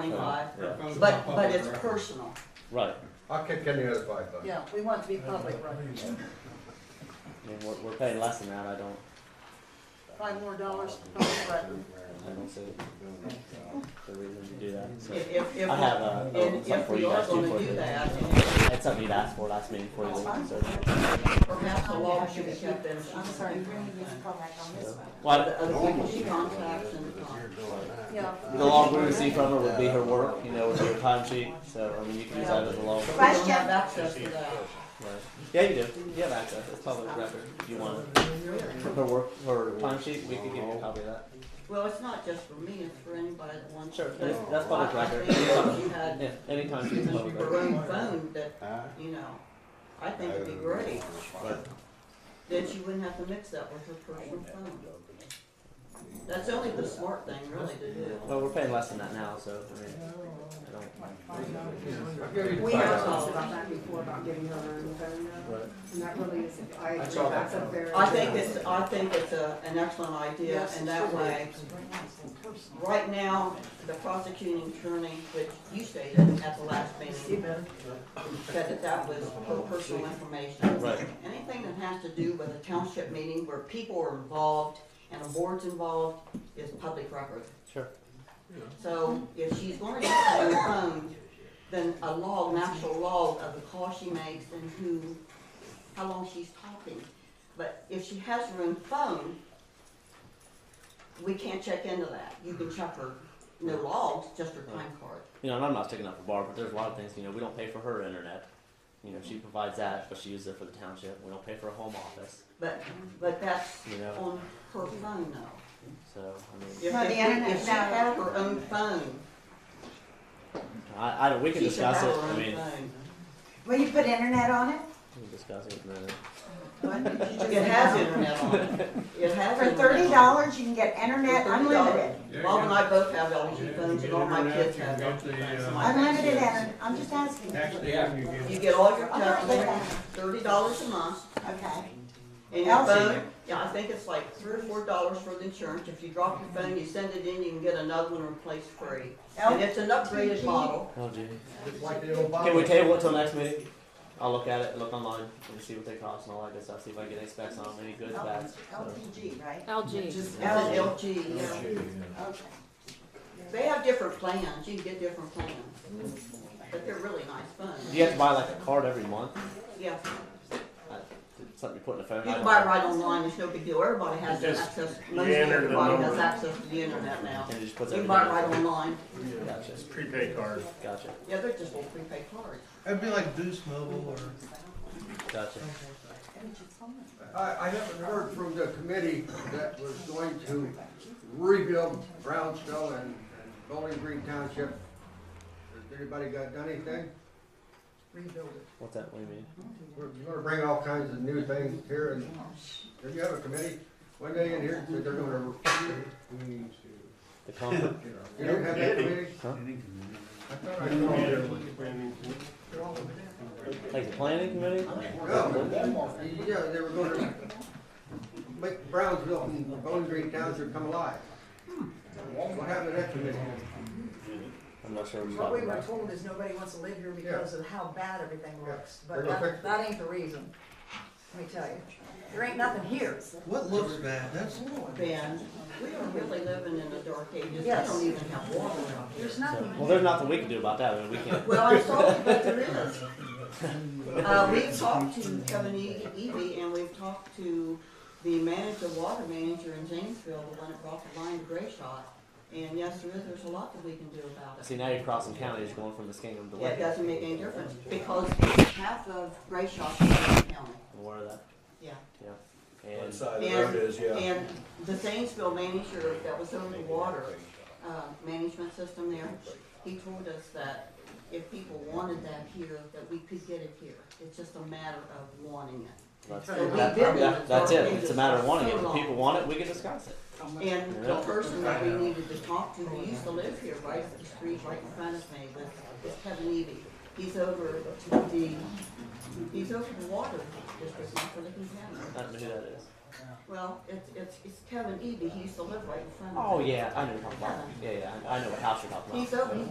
twenty-five, Yeah. but, but it's personal. Right, I'll kick in the other five bucks. Yeah, we want it to be public records. I mean, we're, we're paying less than that, I don't, Five more dollars per record. I don't see the reason to do that, so. If, if, if, I have a, and something if for we you are guys too gonna for do that, the, and it's something you'd asked for last meeting for the, That's fine. so. perhaps the law should be kept in. I'm sorry, we're gonna use contact on this one. Well, The other people she contacts and, uh, Yeah. The log we receive from her would be her work, you know, with her timesheet. So I mean, you can use that as a log. we don't have access to that. Yeah, you do. You have access. It's public record. If you want it. For her work, her timesheet, we could give you a copy of that. Well, it's not just for me, it's for anybody that wants. Sure, to- that's, that's public I- I record. think if you had Yeah, any timesheet is public your record. own phone that, you know, I think it'd be great, But then she wouldn't have to mix that with her personal phone. That's only the smart thing really to do. well, we're paying less than that now, so I mean, I don't. I'll give you the We five have dollars. talked about that before, about giving her her own phone number, and that really is, I agree, I saw that. that's a very. I think it's, I think it's a, an excellent idea, and that way, right now, the prosecuting attorney, which you stated at the last meeting, said that that was her personal information. Right. Anything that has to do with a township meeting where people are involved and the board's involved is public record. Sure. So if she's gonna get her own phone, then a log, an actual log of the call she makes and who, how long she's talking. But if she has her own phone, we can't check into that. You can check her, no logs, just her time card. You know, and I'm not sticking up for Barb, but there's a lot of things. You know, we don't pay for her internet. You know, she Mm-hmm. provides that, but she uses it for the township. We don't pay for a home office. But, but that's You know, on her phone though. so I mean. If- No, the if- internet, If she no. had her own phone, I, I don't, we can she should have discuss her it, I own mean, phone. Will you put internet on it? we can discuss it in a minute. It has internet on it. It has. For internet thirty on it. dollars, you can get internet For $30. unlimited, Bob and I both have LG phones, and all my kids have Yeah, you get internet, LG you get phones. the, uh, and my unlimited grandkids. internet, I'm just asking. Next day, you You get, get all your I'm not with calculators, that, thirty dollars a month, okay. and your LG. phone, yeah, I think it's like three or four dollars for the insurance, if you drop your phone, you send it in, you can get another one replaced free. And it's an upgraded model, Oh gee. It's like the old Can we Bible. table it till next meeting? I'll look at it, look online, and see what they cost and all that good stuff, see if I can get any specs on them, any good specs. LPG, right? which LG. is it's an LG, yeah. Okay. They have different plans, you can get different plans, but they're really nice Do phones, you have to buy like a card every month? yeah. Something you put in the phone? You can I don't buy it know. right online, it's no big deal, everybody has Just access, you most enter the everybody has number. access to the internet now. And it just puts You can everything. buy it right in. online, Gotcha, it's prepaid card. gotcha, yeah, they're just little prepaid cards. It'd be like Boost Mobile or gotcha. I, I haven't heard from the committee that was going to rebuild Brownsville and, and Bowling Green Township. Has anybody got, done anything? What's that, what do you mean? We're gonna bring all kinds of new things here and, did you have a committee? One day in here, said they're gonna, The comfort? you don't have that committee? Huh? I thought I saw it. Like the planning committee? No, yeah, they were gonna make Brownsville and Bowling Green Township come alive. What happened to that committee? I'm not sure what you're What we talking were about. told is nobody wants to live here because of how bad everything looks, We're but gonna that, fix it. that ain't the reason, let me tell you. There ain't nothing here. what looks bad. That's Ben, we are really living in the dark ages, we Yes. don't even have water out here. There's So- nothing. Well, there's nothing we can do about that, I mean, we can't, Well, I'm sorry, but there is. Uh, we've talked to Kevin E- Eby, and we've talked to the manager, water manager in Janesville, the one that brought the line to Gray Shot. And yes, there is, there's a lot that we can do about it. see, now you're crossing counties, going from Muskingum to Yeah, It Lincoln. doesn't make any difference, because half of Gray Shot is in county, I'm aware of that, yeah. yeah. And of side the road is, And the Zanesville manager that was on the water, uh, management system there, he told us that if people wanted that here, that we could get it here. It's just a matter of wanting it. that's, So we that- did that- that's it, it's a matter of wanting it, So if long. people want it, we can discuss it. And the person that we needed to talk to, who used to live here, right up the street, right in front of me, was, is Kevin Eby. He's over the, he's over the water district, not for the contaminant. I don't know who that is. Well, it's, it's, it's Kevin Eby, he used to live right in front of me. Oh yeah, I know what you're talking about. Yeah, yeah, I I know what house you're talking about. He's over,